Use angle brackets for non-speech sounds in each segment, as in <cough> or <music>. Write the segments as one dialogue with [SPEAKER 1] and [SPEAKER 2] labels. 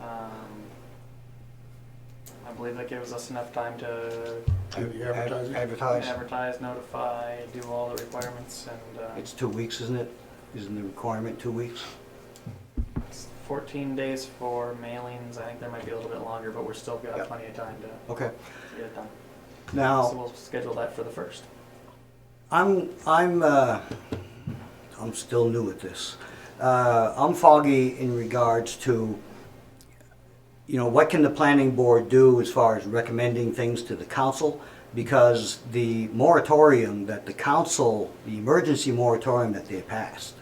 [SPEAKER 1] Um, believe that gives us enough time to
[SPEAKER 2] Do the
[SPEAKER 3] Ad-
[SPEAKER 2] advertising.
[SPEAKER 3] Advertise.
[SPEAKER 1] advertise, notify, do all the requirements, and uh,
[SPEAKER 3] It's two weeks, isn't it? Isn't the requirement two weeks?
[SPEAKER 1] it's 14 days for mailings. I think there might be a little bit longer, but we're still got
[SPEAKER 3] Yeah.
[SPEAKER 1] plenty of time to
[SPEAKER 3] Okay.
[SPEAKER 1] get it done. So
[SPEAKER 3] Now,
[SPEAKER 1] we'll schedule that for the first.
[SPEAKER 3] I'm, I'm, uh, I'm still new at this. Uh, I'm foggy in regards to, you know, what can the planning board do as far as recommending things to the council? Because the moratorium that the council, the emergency moratorium that they passed,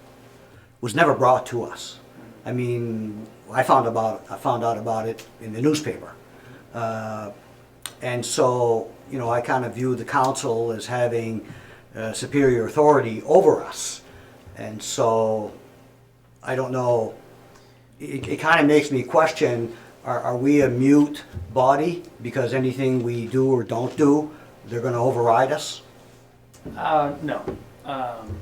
[SPEAKER 3] was never brought to us. I mean, I found about, I found out about it in the newspaper. Uh, And so, you know, I kind of view the council as having uh, superior authority over us. And so, I don't know, it, it kind of makes me question, are, are we a mute body? Because anything we do or don't do, they're gonna override us?
[SPEAKER 1] Uh, no. Um,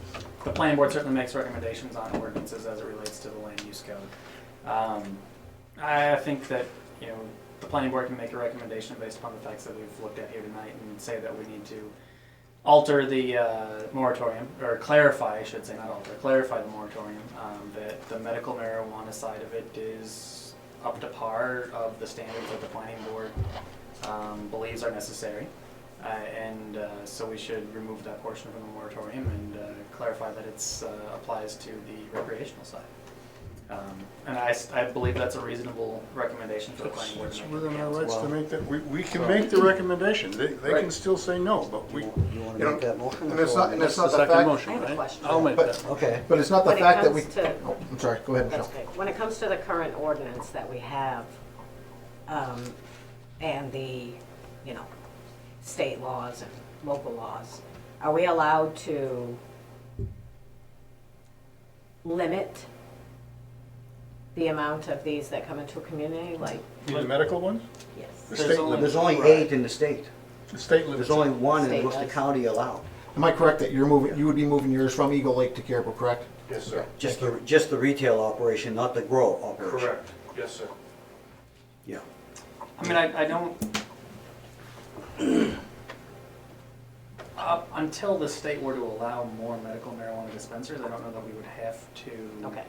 [SPEAKER 1] the planning board certainly makes recommendations on ordinances as it relates to the land use code. Um, I think that, you know, the planning board can make a recommendation based upon the facts that we've looked at here tonight and say that we need to alter the, uh, moratorium, or clarify, I should say, not alter, clarify the moratorium, um, that the medical marijuana side of it is up to par of the standards that the planning board, um, believes are necessary. Uh, and uh, so we should remove that portion from the moratorium and uh, clarify that it's uh, applies to the recreational side. Um, and I, s- I believe that's a reasonable recommendation for the
[SPEAKER 2] It's
[SPEAKER 1] planning board. to
[SPEAKER 2] it's
[SPEAKER 1] make.
[SPEAKER 2] within our rights to make that, we, we can
[SPEAKER 1] So-
[SPEAKER 2] make the recommendation, they, they can
[SPEAKER 1] Right.
[SPEAKER 2] still say no, but we.
[SPEAKER 3] You wanna
[SPEAKER 4] You know,
[SPEAKER 3] make that motion?
[SPEAKER 4] And it's not, and it's
[SPEAKER 2] That's
[SPEAKER 4] not
[SPEAKER 2] the
[SPEAKER 4] the
[SPEAKER 2] second
[SPEAKER 4] fact,
[SPEAKER 2] motion,
[SPEAKER 5] I have a
[SPEAKER 2] right?
[SPEAKER 5] question.
[SPEAKER 2] I'll make that.
[SPEAKER 3] Okay,
[SPEAKER 4] but it's not the
[SPEAKER 5] When it
[SPEAKER 4] fact that we.
[SPEAKER 5] comes to-
[SPEAKER 4] Oh, I'm sorry, go ahead,
[SPEAKER 5] That's
[SPEAKER 4] Michelle.
[SPEAKER 5] okay. When it comes to the current ordinance that we have, um, and the, you know, state laws and local laws, are we allowed to limit the amount of these that come into a community, like?
[SPEAKER 2] The medical ones, the
[SPEAKER 5] Yes.
[SPEAKER 1] There's
[SPEAKER 2] state
[SPEAKER 1] only-
[SPEAKER 2] limits,
[SPEAKER 3] there's only eight in the state.
[SPEAKER 2] the state limits.
[SPEAKER 3] There's only one in
[SPEAKER 5] State
[SPEAKER 3] Worcester
[SPEAKER 5] does.
[SPEAKER 3] County allowed.
[SPEAKER 4] Am I correct that you're moving, you would be moving yours from Eagle Lake to Caribou, correct?
[SPEAKER 2] Yes, sir.
[SPEAKER 3] Just the, just the retail operation, not the grow operation.
[SPEAKER 2] yes, sir.
[SPEAKER 3] Yeah.
[SPEAKER 1] I mean, I, I don't. Up until the state were to allow more medical marijuana dispensers, I don't know that we would have to
[SPEAKER 5] Okay,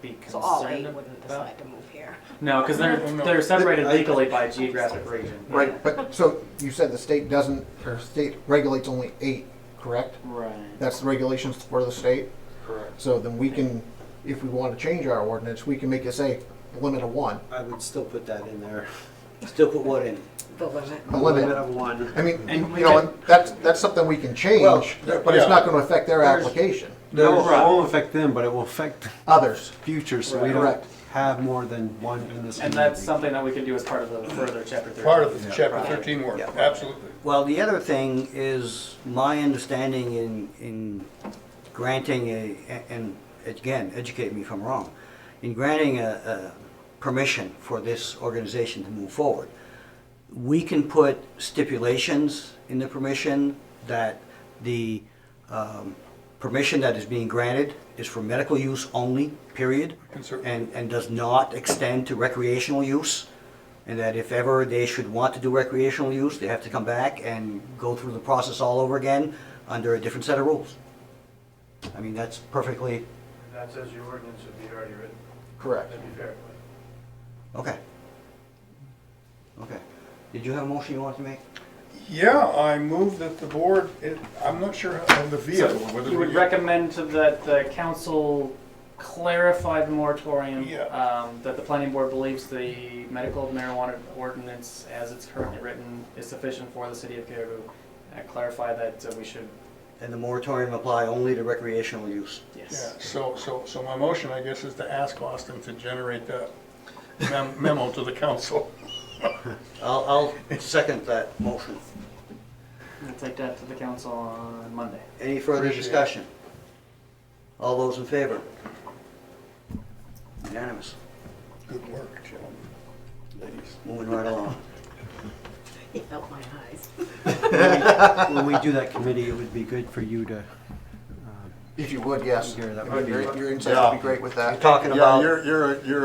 [SPEAKER 1] be concerned
[SPEAKER 5] so all eight wouldn't
[SPEAKER 1] about-
[SPEAKER 5] decide to move here. <laughs>
[SPEAKER 1] No, because they're,
[SPEAKER 2] No, no.
[SPEAKER 1] they're separated
[SPEAKER 4] I-
[SPEAKER 1] legally by geographic region.
[SPEAKER 4] Right, but, so you said the state doesn't, or state regulates only eight, correct?
[SPEAKER 1] Right.
[SPEAKER 4] That's the regulations for the state?
[SPEAKER 2] Correct.
[SPEAKER 4] So then we can, if we want to change our ordinance, we can make it say limit of one.
[SPEAKER 3] I would still put that in there. Still put what in?
[SPEAKER 5] The limit.
[SPEAKER 4] A limit.
[SPEAKER 3] of one.
[SPEAKER 4] I mean,
[SPEAKER 1] And we
[SPEAKER 4] you know,
[SPEAKER 1] can-
[SPEAKER 4] and that's, that's something we can change,
[SPEAKER 2] Well,
[SPEAKER 4] but it's
[SPEAKER 2] yeah.
[SPEAKER 4] not going to affect their
[SPEAKER 3] There's-
[SPEAKER 4] application.
[SPEAKER 6] No, it
[SPEAKER 1] Right.
[SPEAKER 6] won't affect them, but it will affect
[SPEAKER 4] Others.
[SPEAKER 6] future, so we
[SPEAKER 4] Right.
[SPEAKER 6] don't have more than one in this.
[SPEAKER 1] And that's something that we could do as part of the further chapter thirty.
[SPEAKER 2] Part of the chapter
[SPEAKER 1] Right.
[SPEAKER 2] thirteen work,
[SPEAKER 3] Yeah.
[SPEAKER 2] absolutely.
[SPEAKER 3] Well, the other thing is my understanding in, in granting a, and again, educate me if I'm wrong, in granting a, a permission for this organization to move forward, we can put stipulations in the permission that the um, permission that is being granted is for medical use only, period,
[SPEAKER 2] Can cer-
[SPEAKER 3] and, and does not extend to recreational use, and that if ever they should want to do recreational use, they have to come back and go through the process all over again under a different set of rules. I mean, that's perfectly,
[SPEAKER 7] That says your ordinance would be already written,
[SPEAKER 4] Correct.
[SPEAKER 7] that'd be fair.
[SPEAKER 3] okay. Okay. Did you have a motion you wanted to make?
[SPEAKER 2] Yeah, I move that the board, it- I'm not sure of the vehicle, whether
[SPEAKER 1] You would
[SPEAKER 2] we-
[SPEAKER 1] recommend to that the council clarify the moratorium?
[SPEAKER 2] Yeah.
[SPEAKER 1] Um, that the planning board believes the medical marijuana ordinance as it's currently written is sufficient for the city of Caribou. Uh, clarify that uh, we should,
[SPEAKER 3] And the moratorium apply only to recreational use.
[SPEAKER 2] Yeah,
[SPEAKER 1] yes.
[SPEAKER 2] so, so, so my motion, I guess, is to ask Austin to generate that mem- memo to the council.
[SPEAKER 3] I'll, I'll second that motion.
[SPEAKER 1] We'll take that to the council on Monday.
[SPEAKER 3] Any further
[SPEAKER 2] Appreciate it.
[SPEAKER 3] discussion? All those in favor? Unanimous.
[SPEAKER 2] Good work, gentlemen. Ladies.
[SPEAKER 3] Moving right along.
[SPEAKER 5] He felt my eyes.
[SPEAKER 6] When we do that committee, it would be good for you to, uh,
[SPEAKER 4] If you would, yes.
[SPEAKER 6] Gary, that
[SPEAKER 4] If
[SPEAKER 6] would be-
[SPEAKER 4] Your your insight would be great with that.
[SPEAKER 3] Talking
[SPEAKER 2] Yeah,
[SPEAKER 3] about.
[SPEAKER 2] you're, you're, a- you're